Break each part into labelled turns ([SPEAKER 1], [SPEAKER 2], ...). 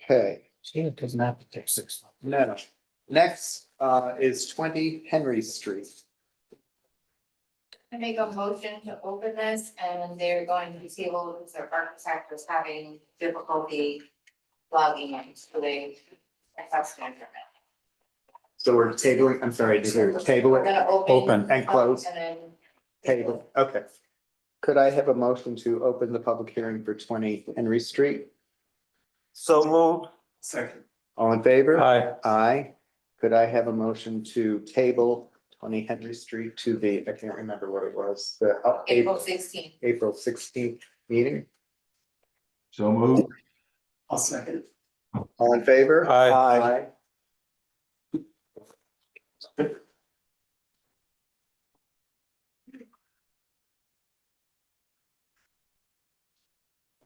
[SPEAKER 1] Okay,
[SPEAKER 2] See, it doesn't have to take six months.
[SPEAKER 1] no. Next uh, is twenty Henry Street.
[SPEAKER 3] I make a motion to open this and they're going to table because their architect was having difficulty logging in to the assessment permit.
[SPEAKER 1] So we're tabling, I'm sorry, did you table
[SPEAKER 3] We're
[SPEAKER 1] it
[SPEAKER 3] gonna open.
[SPEAKER 2] Open.
[SPEAKER 1] and close?
[SPEAKER 3] And then.
[SPEAKER 1] Table, okay. Could I have a motion to open the public hearing for twenty Henry Street?
[SPEAKER 4] So move.
[SPEAKER 1] Second. All in favor?
[SPEAKER 4] Aye.
[SPEAKER 1] Aye. Could I have a motion to table twenty Henry Street to the, I can't remember what it was, the uh,
[SPEAKER 3] April
[SPEAKER 1] April,
[SPEAKER 3] sixteenth.
[SPEAKER 1] April sixteenth meeting?
[SPEAKER 4] So move.
[SPEAKER 1] I'll second. All in favor?
[SPEAKER 4] Aye.
[SPEAKER 1] Aye.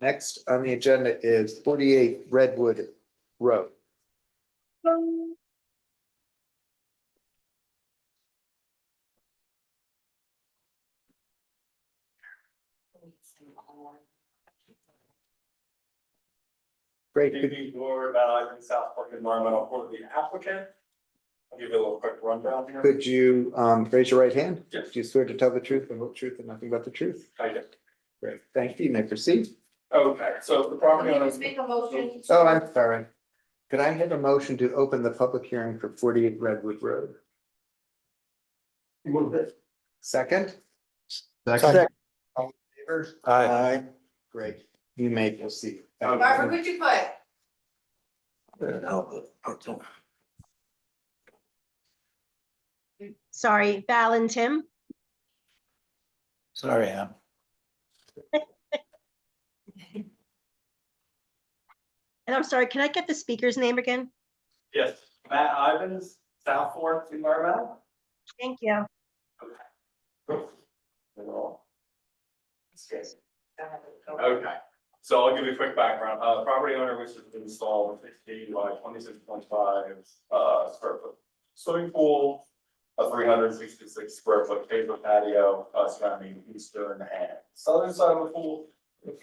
[SPEAKER 1] Next on the agenda is forty-eight Redwood Road. Great,
[SPEAKER 5] Good
[SPEAKER 1] could-
[SPEAKER 5] evening, Board, uh, I'm South Park Environmental for the applicant. I'll give you a little quick rundown here.
[SPEAKER 1] could you um raise your right hand?
[SPEAKER 5] Yes.
[SPEAKER 1] Do you swear to tell the truth, the whole truth, and nothing but the truth?
[SPEAKER 5] I did.
[SPEAKER 1] Great, thank you, you may proceed.
[SPEAKER 5] Okay, so the property owner.
[SPEAKER 3] Just make a motion.
[SPEAKER 1] Oh, I'm sorry. Could I have a motion to open the public hearing for forty-eight Redwood Road?
[SPEAKER 5] Move it.
[SPEAKER 1] Second?
[SPEAKER 4] Second.
[SPEAKER 1] All in favor?
[SPEAKER 4] Aye.
[SPEAKER 1] Great, you may proceed.
[SPEAKER 3] Barbara, could you put?
[SPEAKER 6] Sorry, Val and Tim.
[SPEAKER 2] Sorry, Em.
[SPEAKER 6] And I'm sorry, can I get the speaker's name again?
[SPEAKER 5] Yes, Matt Ivins, South Fork Environmental.
[SPEAKER 6] Thank you.
[SPEAKER 5] Yes.
[SPEAKER 1] Uh,
[SPEAKER 5] Okay, so I'll give you a quick background. Uh, property owner wishes to install a fifty by twenty-six point five, uh, square foot swimming pool, a three hundred sixty-six square foot table patio, uh, surrounding the eastern and southern side of the pool,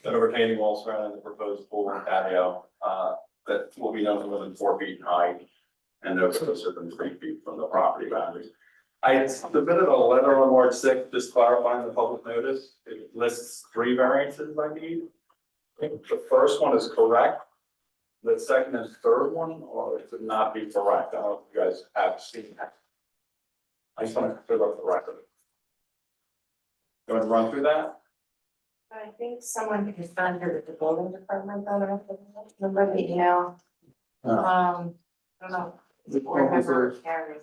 [SPEAKER 5] and a retaining wall surrounding the proposed pool and patio, uh, that will be nothing more than four feet in height and no closer than three feet from the property boundary. I had submitted a letter on March sixth, just clarifying the public notice. It lists three variances I need. I think The first one is correct. The second and third one are to not be correct. I don't know if you guys have seen that. I just want to clear up the record. Going to run through that?
[SPEAKER 3] I think someone has done it at the building department, I don't remember the email.
[SPEAKER 5] Uh.
[SPEAKER 1] Oh.
[SPEAKER 3] Um, I don't know, board member Karen.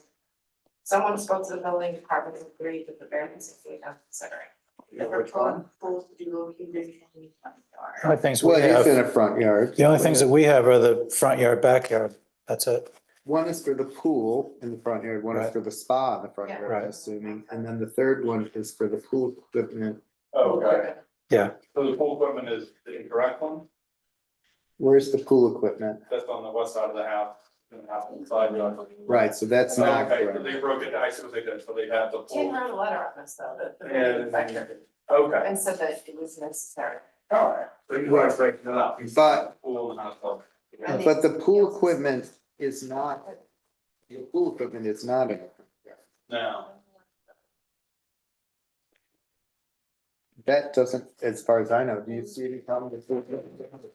[SPEAKER 3] Someone spoke to the building department and agreed that the variance is being considered. The proposed pool to be located in the front
[SPEAKER 2] The
[SPEAKER 3] yard.
[SPEAKER 2] only things we
[SPEAKER 1] Well, it's in
[SPEAKER 2] have,
[SPEAKER 1] a front yard.
[SPEAKER 2] the only things that we have are the front yard, backyard. That's it.
[SPEAKER 1] One is for the pool in the front yard, one is
[SPEAKER 2] Right.
[SPEAKER 1] for the spa in the front
[SPEAKER 3] Yeah.
[SPEAKER 1] yard, I'm
[SPEAKER 2] Right.
[SPEAKER 1] assuming, and then the third one is for the pool equipment.
[SPEAKER 5] Oh, Okay,
[SPEAKER 2] Yeah.
[SPEAKER 5] so the pool equipment is the incorrect one.
[SPEAKER 1] Where's the pool equipment?
[SPEAKER 5] That's on the west side of the house, in the house inside. you know.
[SPEAKER 1] Right, so that's not
[SPEAKER 5] Okay, so
[SPEAKER 1] correct.
[SPEAKER 5] They broke it, I suppose they did, so they had the
[SPEAKER 3] Tim
[SPEAKER 5] pool.
[SPEAKER 3] wrote a letter on this though, that the building
[SPEAKER 5] And,
[SPEAKER 3] inspector,
[SPEAKER 5] okay.
[SPEAKER 3] and said that it was necessary.
[SPEAKER 5] Alright, so you guys breaking it up.
[SPEAKER 1] Oh, But-
[SPEAKER 5] Pool and hot tub.
[SPEAKER 3] I think-
[SPEAKER 1] Uh, But the pool equipment is not, the pool equipment is not in. the front yard.
[SPEAKER 5] Now,
[SPEAKER 1] That doesn't, as far as I know, do you see any problem with pool equipment?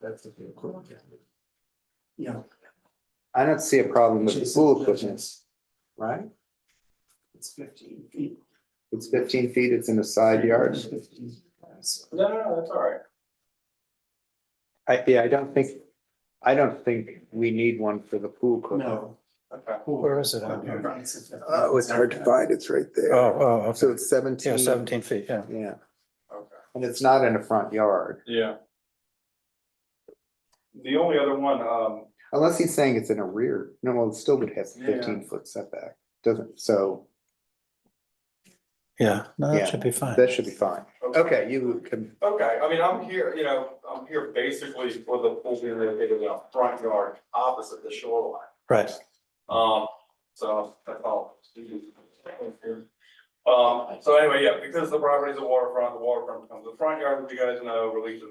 [SPEAKER 1] That's the pool equipment.
[SPEAKER 2] Yeah.
[SPEAKER 1] I don't see a problem with the pool equipment, right?
[SPEAKER 2] It's fifteen feet.
[SPEAKER 1] It's fifteen feet, it's in the side yard.
[SPEAKER 5] no, no, no, that's alright.
[SPEAKER 1] I, yeah, I don't think, I don't think we need one for the pool equipment.
[SPEAKER 5] Okay.
[SPEAKER 2] Where is it on here?
[SPEAKER 1] Oh, it's hard to find, it's right
[SPEAKER 2] Oh, oh,
[SPEAKER 1] So
[SPEAKER 2] okay.
[SPEAKER 1] it's seventeen.
[SPEAKER 2] Yeah, seventeen feet, yeah.
[SPEAKER 1] Yeah,
[SPEAKER 5] Okay.
[SPEAKER 1] and it's not in a front yard,
[SPEAKER 5] Yeah. The only other one, um,
[SPEAKER 1] unless he's saying it's in a rear, no, well, it still would have fifteen foot setback, doesn't, so
[SPEAKER 2] Yeah, no,
[SPEAKER 1] Yeah.
[SPEAKER 2] that should be fine.
[SPEAKER 1] that should be fine. Okay, you can,
[SPEAKER 5] Okay, I mean, I'm here, you know, I'm here basically for the pool being located in a front yard opposite the shoreline.
[SPEAKER 2] Right.
[SPEAKER 5] Um, so that's all. Um, so anyway, yeah, because the property is a waterfront, the waterfront becomes the front yard, as you guys know, releases